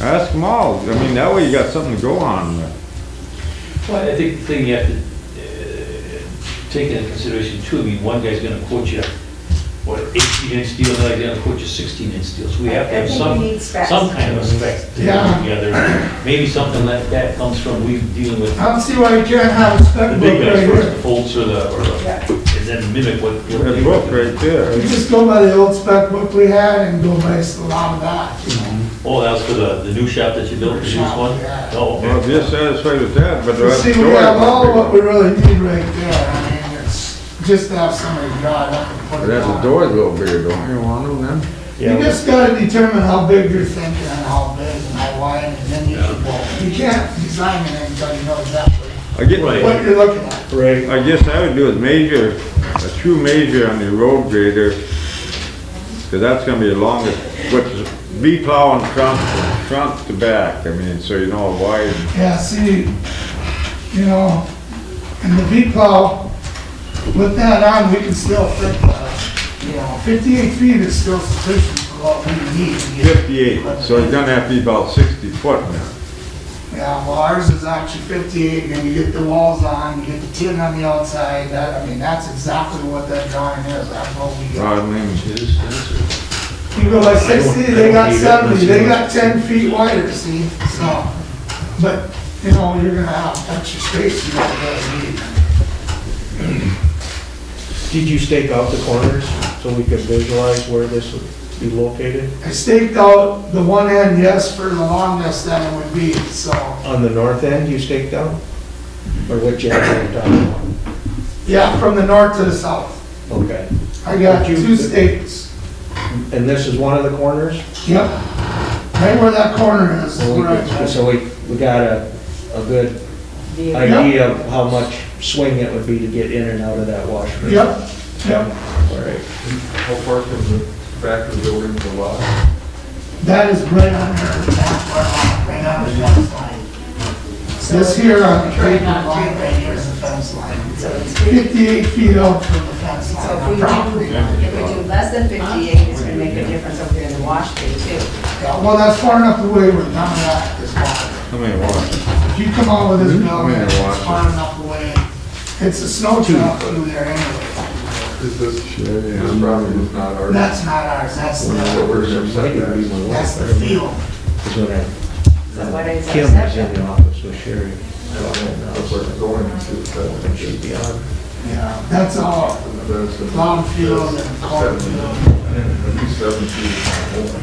Ask them all. I mean, that way you got something to go on with. Well, I think the thing you have to uh, take into consideration too, I mean, one guy's gonna quote you, what, 18 inch steel, another guy's gonna quote you 16 inch steel, so we have to I have think we some, need specs. some kind of a spec to Yeah. put together. Maybe something like that comes from, we dealing with I don't see why you can't have a the spec book big guys right first, here. the Foltz or the, or the- Yeah. and then mimic what. what they- That book right You there. just go by the old spec book we had and go by a lot of that, you know. Oh, that's for the, the new shop that you built, the new Shop, one? yeah. Oh, Well, if okay. you're satisfied with that, but. But see, we have all what we really need right there, I mean, it's just to have somebody draw it up and put it That's the on. door's a little bigger, don't you want them then? You just gotta determine how big you're thinking and how big and how wide, and then you can go. You can't design it until you know exactly I get, Right. what you're looking at. Right. I guess I would do is major, a true major on the road grader, cause that's gonna be the longest, but be plowing front, front to back, I mean, so you know how wide. Yeah, see, you know, in the V-plow, with that on, we can still fit, uh, you know, fifty-eight feet is still sufficient for what we need. to get- Fifty-eight, so it's gonna have to be about sixty foot now. Yeah, well, ours is actually fifty-eight, and then you get the walls on, you get the tin on the outside, that, I mean, that's exactly what that drawing is, that's what we got. Well, I mean, You go by sixty, they I got don't need it seventy, they got unless you ten feet wider, see, so, but, you know, you're gonna have extra space you don't really need. Did you stake out the corners so we could visualize where this would be located? I staked out the one end, yes, for the longest that it would be, so, On the north end, you staked out? Or what you have on yeah, from the north to the south. top? Okay. I got two stakes. And this is one of the corners? Yep. Right where that corner is. So we could- Right. So we, we got a, a good idea of how much swing it would be to get in and out of that washroom? Yep, yep. All right. How far from the back of the building to the lot? That is right on there, that's where I'm, right on the fence line. This here on the Right trade on line, trade right here is the fence line. So it's fifty, Fifty-eight feet out from the fence so if line, we the property do, line. if we do less than fifty-eight, it's gonna make a difference over here in the wash bay too. Yeah, Well, that's far enough away where none of that is bothered. how many watts? If you come out with this building, Mm-hmm. Yeah, watch it's it. far enough away. It's a snow trail through there anyway. Is this, Sure, this property is not ours? That's not ours, that's What the, we're gonna set Might be that. my that's wife, the field. is when I- So what is our Kim was in section? the office with Sherry. That's where it's going When she'd to. be on. Yeah, that's all That's a- lawn field and cornfield. At least seven feet.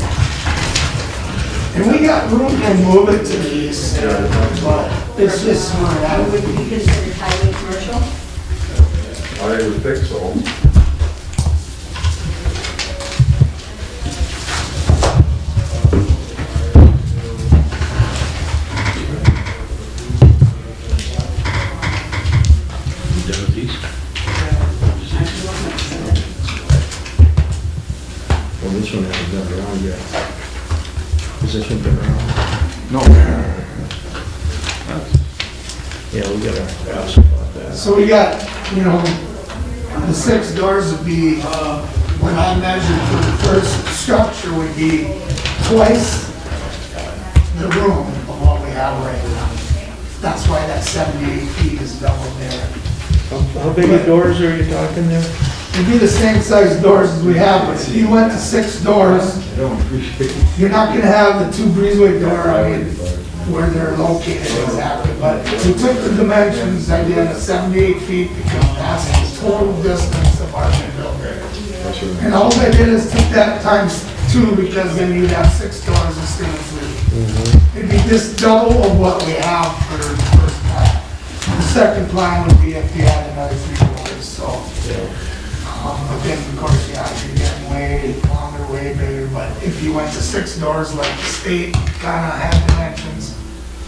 And we got room to move it to the east, but it's just where that Would would we be. consider highway commercial? I would think so. You done with these? Well, this one hasn't been around yet. Has this one been around? No. Eh. Yeah, we gotta ask about that. So we got, you know, the six doors would be, uh, when I measured for the first structure would be twice the room of what we have right now. That's why that 78 feet is double there. How- How big of doors are you talking there? It'd be the same size doors as we have, but if you went to six doors, I don't appreciate you're not gonna have the two breezeway door, I mean, where they're located exactly, but we took the dimensions, I did a seventy-eight feet, because that's the total distance of our new building. And all I did is took that times two, because then you'd have six doors instead of three. Mm-hmm. It'd be just double of what we have for the first plan. The second plan would be if you had another three doors, so. Um, But then, of course, yeah, you're getting way longer, way bigger, but if you went to six doors like the state kinda had dimensions,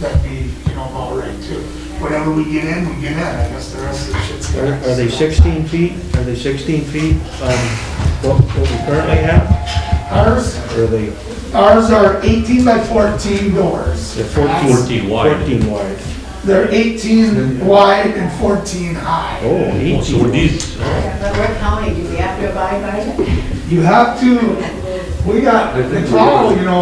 that'd be, you know, all right too. Whatever we get in, we get in, I guess the rest of the shit's. Are are they 16 feet? Are they 16 feet, um, what what we currently have? Ours, Or are they ours are eighteen by fourteen doors. they're 14? 14 wide. 14 wide. They're eighteen wide and fourteen high. Oh, Oh, 18. So with these, Yeah, But what county, do we have to abide by it? You have to, we got, the call, you know,